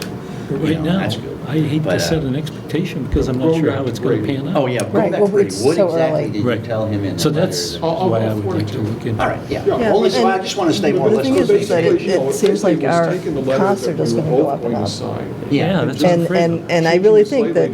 But you right know, now, that's good. I hate But, uh, to set an expectation because I'm not Going sure back how to it's going to Brady. pan out. Oh, yeah, Right, going well, back to Brady, it's what so exactly early. did you Right. tell him in the So letter? that's that- I'll- why I would afford like it to to him. look into All right, it. yeah. Yeah, Well, listen, I and- just want to stay but more the or less thing on is, the is same that page. it- seems like our concert is gonna go up and up. Yeah. that's what I'm And, afraid of. and, and I really think that,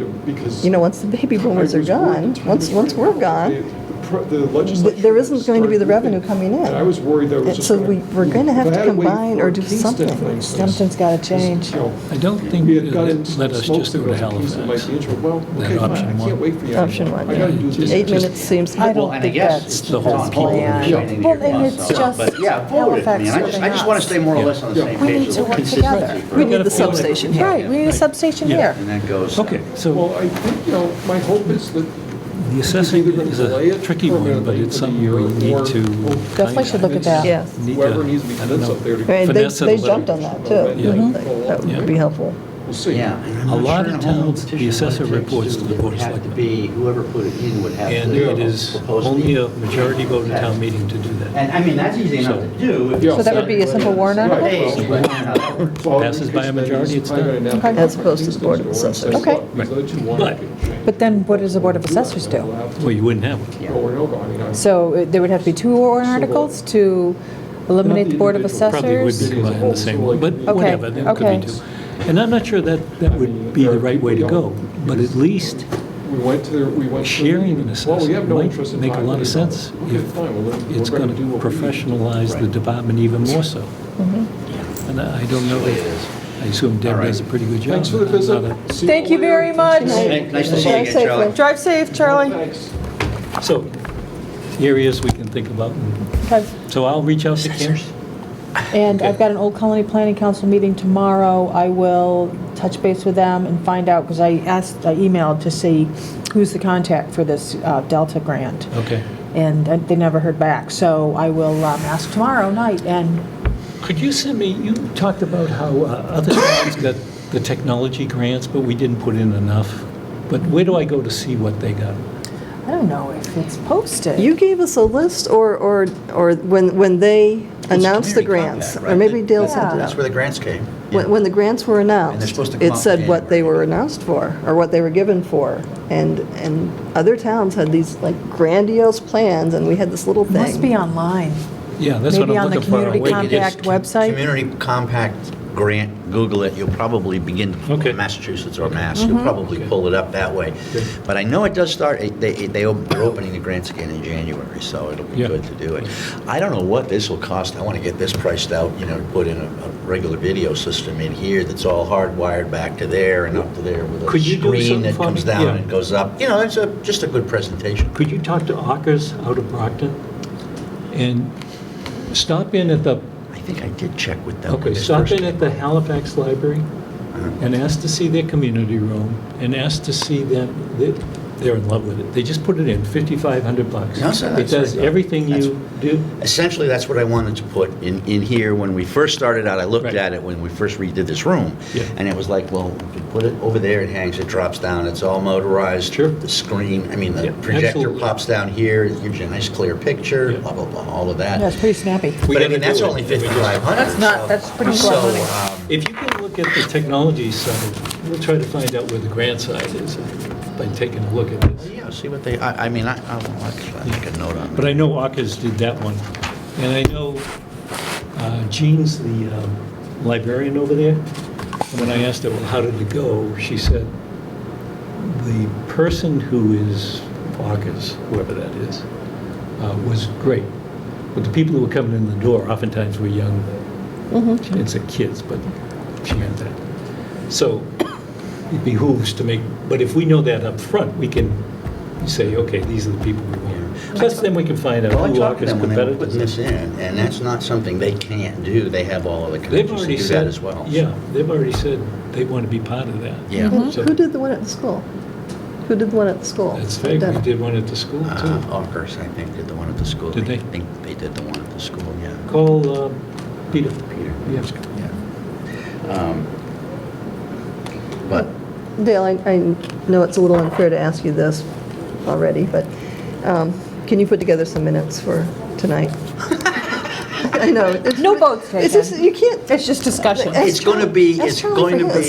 you know, once the baby boomers are gone, once, once we're gone, th- gone, there isn't going to be the revenue coming in. And I was worried that it was And just So gonna- we, we're gonna have If I to had wait combine for or a do Kingston thing, something. Something's gotta change. you know, I don't think we had got that in some let us smoke just go to signals and things that might Halifax. be interesting. Well, That okay, fine, option I one. can't wait for you. Option anymore. one, I gotta yeah. do Just- this. Eight just- minutes seems, I Well, don't and I think guess that's it's the the whole best people plan. training Well, to your and it's plus. just But yeah, forward it, man. Halifax I just, I ripping just want us. to stay more or less on the Yeah. same We page. a need to little work consistency together. for We it. need the Gotta feel like- substation here. Right, we need a substation here. And that goes. Okay, so Well, I think, you know, my hope is that. the assessing either gonna is delay a it tricky one, but permanently it's for the something we year need or- to. or Definitely should look at that. Yes. Need to- Whoever needs to be I don't fence up know. there to. Right, they, Finesse it a they little. jumped on that too. Yeah. Mhm. That would be helpful. We'll see. Yeah. and I'm A not lot sure of in a whole towns, the petition what it assessor takes reports to the It Board of would have to Selectmen. be, whoever put it in would have to. And it is propose the- only a majority vote in town meeting to do that. And, I mean, that's easy enough to do. if it's Yeah. So that done would be a in simple warrant seven article? days, but I don't know how that works. Well, Passes by a because majority, that it's is primary done. now. Okay. As opposed to the Board of Assessors. Okay. Okay. These other two won't Right. get changed. But then what does the Board of Assessors do? Well, you wouldn't have one. Yeah. Over and over, I mean, I- So uh, there would have to be two warrant articles to eliminate the Board of Probably would be Assessors? combined in the same one, but Okay, whatever, there could okay. be two. And I'm not sure that, that would be the right way to go, but at least we went to, the- we went. to the sharing an meeting. Well, we have assessment no might interest in make a five lot of million sense dollars. Okay, if fine, well, then we're it's gonna going to do what we do. professionalize the department even more so. And I I don't know, That's the way it is. if I assume Deb All right. does a pretty good job. Thanks for the but I'm visit. not See Thank you later. very much. Nice nice to see you Drive again, safely. Charlie. Drive safe, Charlie. Thanks. a- So areas we can think about. Okay. So I'll reach out to Kim. And Okay. I've got an Old Colony Planning Council meeting tomorrow. I will touch base with them and find out, because I asked, I emailed to see who's the contact for this uh, Delta grant. Okay. And uh, they never heard back, so I will um, ask tomorrow night and Could you send me, you talked about how uh, other towns got the technology grants, but we didn't put in enough. But where do I go to see what they got? I don't know if it's posted. You gave us a list or, or, or when, when they announced community the grants, compact, or right? maybe Dale Yeah. sent it That's where out. the grants came. When, when the grants were announced, supposed to come it out in said what they January. were announced for, or what they were given for. And, and other towns had these like grandiose plans, and we had this little It thing. must be online. Yeah, that's what Maybe I'm on the looking for. Community Wait, it is- Compact website. Community Compact Grant, Google it, you'll probably begin Okay. from Massachusetts or Mass, you'll probably pull it up that way. But I know it does start, it- they, it- they, op- they're opening the grants again in January, so it'll be Yeah. good to do it. I don't know what this will cost, I want to get this priced out, you know, put in a, a regular video system in here that's all hardwired back to there and up to there with a Could you do screen something that for comes me? down Yeah. and goes up. You know, it's a, just a good presentation. Could you talk to Ockers out of Brockton? And stop in at the, I think I did check with them. when okay, this stop first Uh-huh. in at the Halifax Library and ask to see their community room and ask to see them, they- they're in love with it. They just put it in, 5,500 bucks. No, sir, It that's does right. everything you do. Essentially, that's what I wanted to put in, in here. When we first started out, I looked Right. at it when we first redid this room. Yeah. And it was like, well, if you put it over there, it hangs, it drops down, it's all motorized. Sure. The screen, I mean, the Yeah, projector absolutely. pops down here, it gives you a nice clear picture, Yeah. blah, blah, blah, all of that. Yeah, it's pretty snappy. We But I gotta mean, do that's it. only We just- 5,500. That's not- so- that's pretty so, close money. um, If you can look at the technology side, we'll try to find out where the grant side is by taking a look at this. Yeah, see what they, I, I mean, I, I'll I'll make a note on But that. I know Ockers did that one. And I know uh, Jean's the um, librarian over there. And when I asked her, well, how did it go? She said, the person who is Ockers, whoever that is, uh, was great. But the people who were coming in the door oftentimes were young, Mm-hmm. she didn't say kids, but she meant that. So it behooves to make, but if we know that up front, we can say, okay, these are the people we want. Plus, then we can find out Well, I who are talked to them when they were putting competitors. this in, and that's not something they can't do. They have all of the They've connections to already do that said, as well. yeah, they've already said they want to be part of that. Yeah. Uh, Who So who did the one at the school? Who did the one at the school? That's fake, we Done. did one at the school Uh, too. Ockers, I think, did the one at the school. Did they? I think they did the one at the school, yeah. Call um, Peter. Peter. Yes. Yeah. Um, But, Dale, I, I know it's a little unfair to ask you this already, but um, can you put together some minutes for tonight? I know. it's- No votes It's just, taken. you can't, It's just discussion. That's it's going to Charlie- be, that's it's Charlie going to Verhulst. be